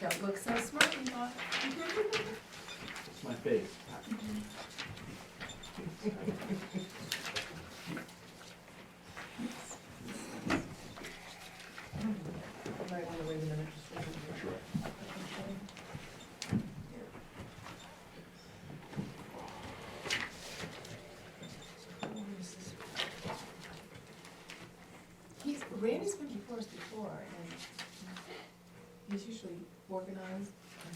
Don't look so smart, you thought. It's my face. You might wanna wait a minute, just wait a minute. He's, Randy's been before us before, and he's usually organized.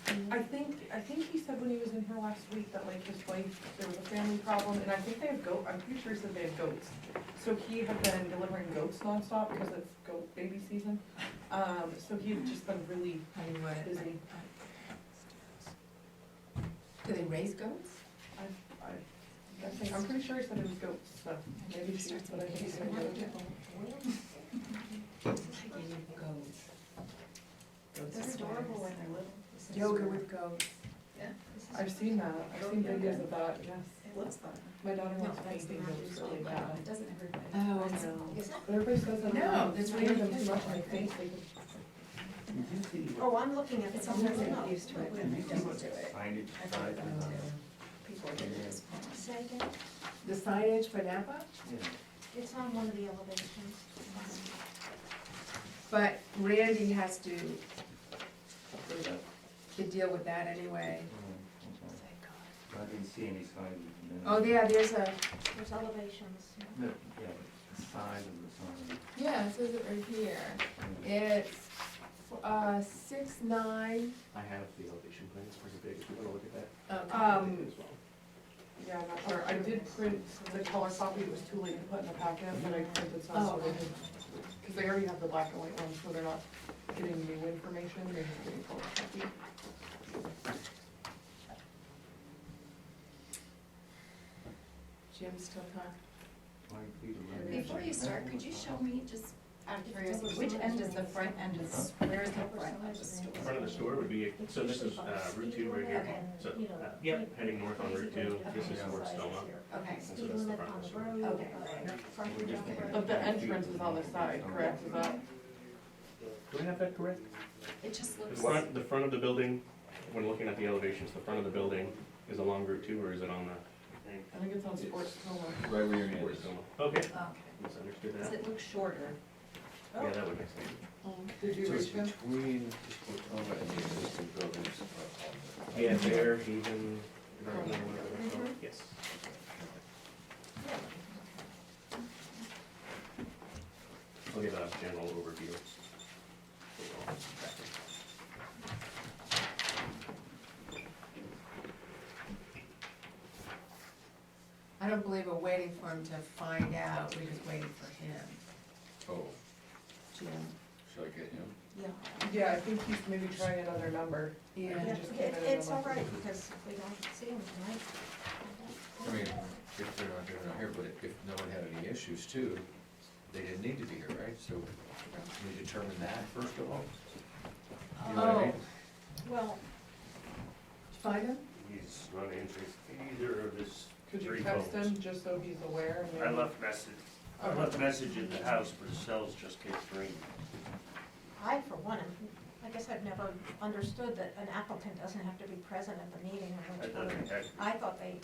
and I clean. think, I think he said when he was in here last week that like his wife, there was a family problem, and I think they have goat, I'm pretty sure he said they have goats. So he had been delivering goats nonstop because it's goat baby season, um, so he had just been really Anyway, busy. do they raise goats? I, I, I think, I'm pretty sure he said it was goats, so maybe she, but I think he said goats. They're adorable when they're little. Yoga with goats. I've seen that, I've seen videos of that, yes. It looks fun. My daughter wants to paint goats really bad. It doesn't ever. Oh, it's- no. it's- But everybody says that. No, there's They have really- them much, I think, they could You did see what- Oh, I'm looking at it, sometimes I'm used to it, but I you see don't what do it. signage I've size done is? that too. People are doing this. The signage for Napa? Yeah. It's on one of the elevations. But Randy has to, to deal with that anyway. Mm, okay. I didn't see any signs. of Oh, the- yeah, there's a, There's elevations. No, yeah, but the size of the sign. yeah, it says it right here. yeah. It's, uh, six nine, I have the elevation plans pretty big, if you wanna look at that. okay, Um, yeah, I'm not sure, I did print the color copy, it was too late to put in the packet, but I printed some, Oh. so they did. Cause they already have the black and white ones, so they're not getting new information, they're just getting color copy. Jim's still talking. Why don't we do that? Before you start, could you show me, just out of curiosity, which end is the front end is, where is the front of the store? Front of the store would be, so this is, uh, Route two right here, so, uh, yep, heading north on Route two, this is towards Stoma. Okay, And so that's the front of the store. okay. We're just gonna- But the entrance is on the side, correct, is that, Do I have that correct? It just The looks. front, the front of the building, when looking at the elevations, the front of the building is along Route two, or is it on the? I think it's on sports Coma. Right where your hand towards is. Stoma? Okay, Okay. misunderstood Does that. it look shorter? Yeah, that would make sense. Did you So it's reach him? Between the oh, Sportoma and the existing buildings. uh, on the- Yeah, there, even. Yes. I'll give a general overview. I don't believe we're waiting for him to find out, we're just waiting for him, Oh, Jim. should I get him? Yeah. Yeah, I think he's maybe trying another number. Yeah. He Yeah, just came it- in It's all another- right, because we don't see them tonight. I mean, if they're not, they're not here, but if no one had any issues too, they didn't need to be here, right? So we determine that first of all. You know what I mean? Well, Oh, Find him? He's not answering either of his Could you three text phones. him, just so he's aware? and I then- left message, I left message at the house, but his cells just kept ringing. I, for one, am- I guess I've never understood that an applicant doesn't have to be present at the meeting. in I which thought we're- I had, I thought they,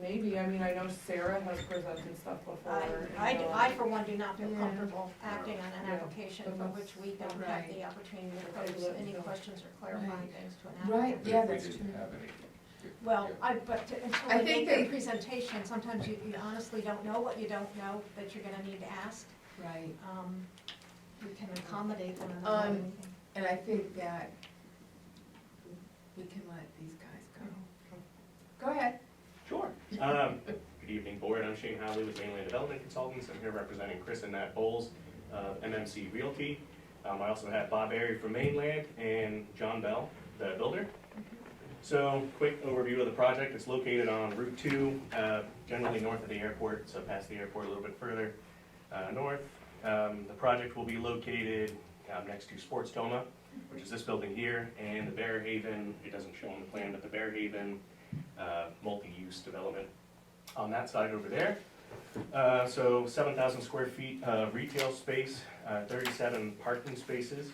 Maybe, I mean, I know Sarah has presented stuff before. I, and, I, do- uh, I, for one, do not feel Yeah. comfortable acting on an Yeah. application for That's- which we don't have the opportunity to pose any questions or clarifying Right. things to an Right, applicant. But yeah, if we that's didn't true. have any, if- Well, yeah. I, but to- I until they think make they- their presentation, sometimes you you honestly don't know what you don't know that you're gonna need to ask. Right. um, we can accommodate one Um, another. And I think that we can let these guys go. Go ahead. Sure. Um, Good evening, Board. I'm Shane Howley with Mainland Development Consultants. I'm here representing Chris and Nat Bowles of MMC Realty. Um, I also have Bob Berry from Mainland and John Bell, the builder. So, quick overview of the project. It's located on Route 2, uh, generally north of the airport, so past the airport a little bit further uh, north. Um, The project will be located um, next to Sports Toma, which is this building here, and the Bear Haven, it doesn't show on the plan, but the Bear Haven uh, multi-use development on that side over there. Uh, So 7,000 square feet of retail space, uh, 37 uh, parking spaces.